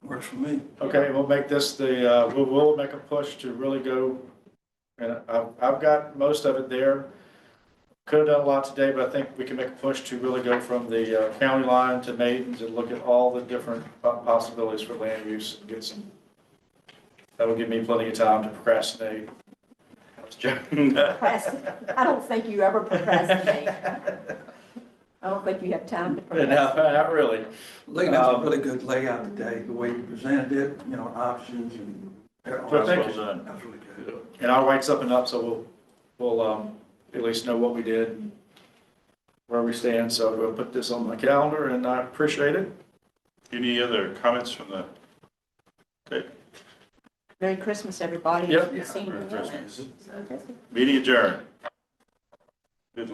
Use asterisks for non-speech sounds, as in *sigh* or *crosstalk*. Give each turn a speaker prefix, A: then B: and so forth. A: works for me.
B: Okay, we'll make this the, uh, we'll, we'll make a push to really go, and I've, I've got most of it there. Could have done a lot today, but I think we can make a push to really go from the uh, county line to Maidens and look at all the different po- possibilities for land use and get some. That will give me plenty of time to procrastinate. *laughs* I was joking.
C: Procrast- I don't think you ever procrastinate. I don't think you have time to
B: No,
C: procrastinate.
B: not really.
A: Lee, that's a
B: Um,
A: really good layout today, the way you presented it, you know, options and.
B: So thank you.
A: That's really good.
B: And I'll write something up, so we'll, we'll, um, at least know what we did, where we stand, so we'll put this on my calendar, and I appreciate it.
D: Any other comments from the? Okay,
C: Merry Christmas, everybody.
B: Yep.
C: See you.
D: Merry Christmas. meeting adjourned.